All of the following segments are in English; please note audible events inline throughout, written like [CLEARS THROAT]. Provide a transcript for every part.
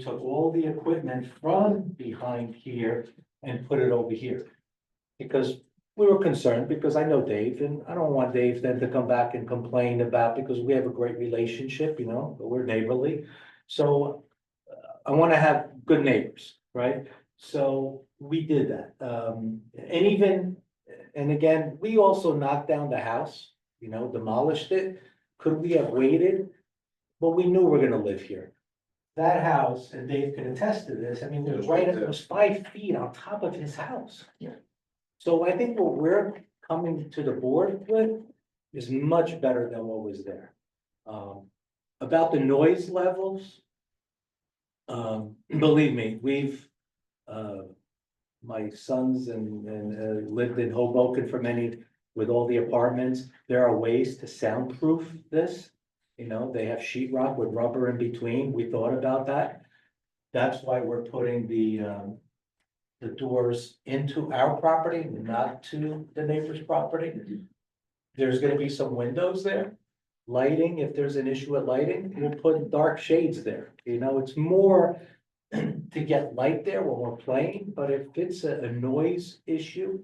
took all the equipment from behind here and put it over here. Because we were concerned, because I know Dave, and I don't want Dave then to come back and complain about, because we have a great relationship, you know, but we're neighborly. So uh, I wanna have good neighbors, right? So we did that, um, and even, and again, we also knocked down the house, you know, demolished it. Could we have waited? But we knew we're gonna live here. That house, and Dave can attest to this, I mean, it was right, it was five feet on top of his house. Yeah. So I think what we're coming to the board with is much better than what was there. Um, about the noise levels. Um, believe me, we've, uh, my sons and, and uh, lived in Hoboken for many, with all the apartments, there are ways to soundproof this. You know, they have sheetrock with rubber in between, we thought about that. That's why we're putting the, um, the doors into our property, not to the neighbor's property. There's gonna be some windows there, lighting, if there's an issue with lighting, we'll put dark shades there, you know, it's more [CLEARS THROAT] to get light there when we're playing, but if it's a, a noise issue,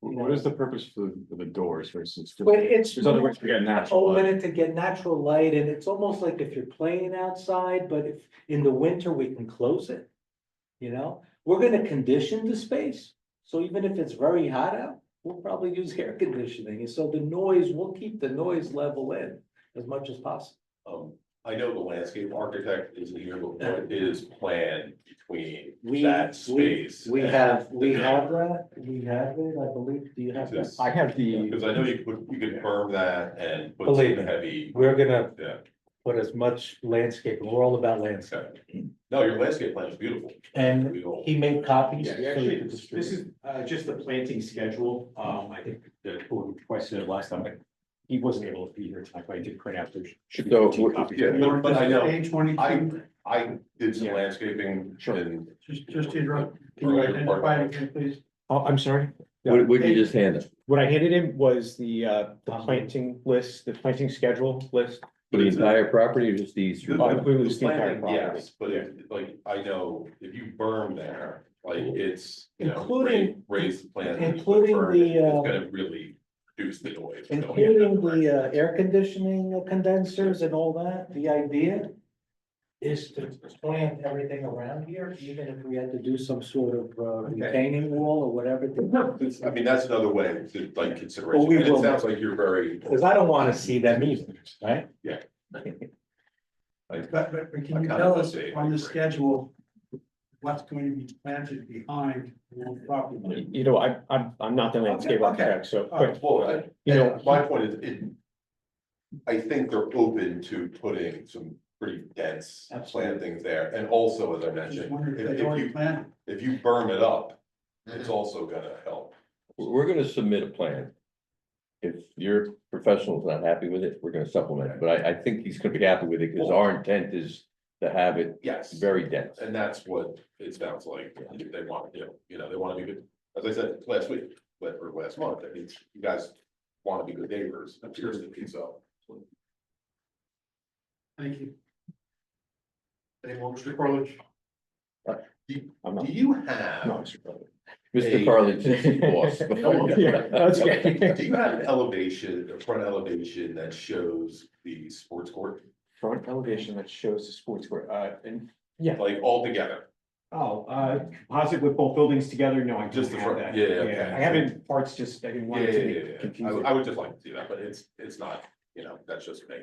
What is the purpose for the- for the doors versus? just- but it's. Oh, There's other ways to get natural. open light. it to get natural light, and it's almost like if you're playing outside, but if, in the winter, we can close it. You know, we're gonna condition the space, so even if it's very hot out, we'll probably use air conditioning, and so the noise, we'll keep the noise level in as much as possible. Um, I know the landscape architect isn't here, but what is planned between We- that we- space? We and- have, we have that, we have it, I believe, do you have that? Exists. I have the, Because I know you could, you could firm that and put Believe some me. heavy, We're gonna yeah, put as much landscape, we're all about landscape, okay. No, your landscape plan is beautiful. and We all- he made copies. Yeah, so you actually, could this distribute. is uh just the planting schedule. Um, I think the board requested it last time, but he wasn't able to be here tonight, but I did print out there. should be So, 15 what- copies. yeah, but- but I know, I, twenty-two, I did some Yeah. landscaping Sure. and. just, just to interrupt, can you Earlier identify it again, please? Oh, I'm sorry. What, what you just handed? What I handed him was the uh, the planting list, the planting schedule list. For the entire property or just the east? The- Oh, it was the the entire planting, property. Yes, but if, like, I know if you burn there, like, it's, you know, Including- ra- raise the plant. and you put including berm, the, It's uh, gonna really reduce the noise. going in that Including direction. the uh, air conditioning condensers and all that, the idea is to plant everything around here, even if we had to do some sort of uh, retaining wall or whatever. to- It's- I mean, that's another way to like Well, consideration, we and will- it sounds like you're very, Because I don't want to see them either, right? like, But, but, but I can you kinda tell would us say I on the agree. schedule, what's going to be planted behind the property? You know, I I'm I'm not the landscape Okay, okay. architect, so, All right. but well, I, you know, my point is, it. I think they're open to putting some pretty dense Absolutely. plantings there, and also, as I Just mentioned, wondering if if if they already you, planted. if you burn it up, it's also gonna help. We're gonna submit a plan. If your professional's not happy with it, we're gonna supplement it, but I, I think he's gonna be happy with it, because our intent is to have it Yes. very dense. And that's what it sounds like they want to do, you know, they want to be good, as I said last week, but or last month, I mean, you guys want to be good neighbors, appears to be so. Thank you. Any more, Mr. Carlich? I'm not. Do you No, have, it's- Mr. Carlin, since he's boss. Yeah, that's okay. do you have an elevation, a front elevation that shows the sports court, Front elevation that shows the sports court, uh, and like all together? Oh, uh, composite with both buildings together, no, I Just just the have front, that. yeah, yeah, okay. I haven't, parts just, I didn't Yeah, want yeah, it to yeah, be yeah, yeah. I would- confusing. I would just like to see that, but it's, it's not, you know, that's just me.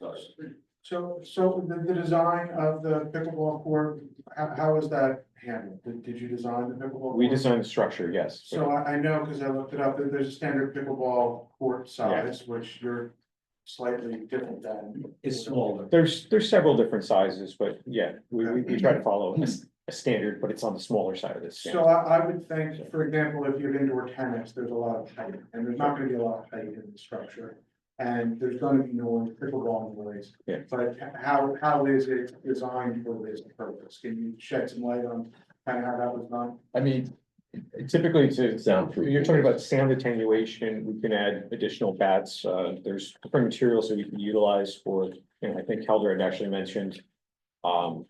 Sorry. So, so the, the design of the pickleball court, how, how is that handled? Did, did you design the pickleball? court? We designed the structure, yes. So I, I know, because I looked it up, that there's a standard pickleball court Yeah. size, which you're slightly different than. It's smaller. There's, there's several different sizes, but yeah, we, we, we try to follow a, s- a standard, but it's on the smaller side of this. So I, I would think, for example, if you're indoor tennis, there's a lot of height, and there's not gonna be a lot of height in the structure. And there's gonna be noise, pickleball noise. Yeah. But how, how is it designed for this purpose? Can you shed some light on kind of how that was done? I mean, typically to, Soundproof. you're talking about sound attenuation, we can add additional bats, uh, there's different materials that we can utilize for, you know, I think Helder had actually mentioned. Um,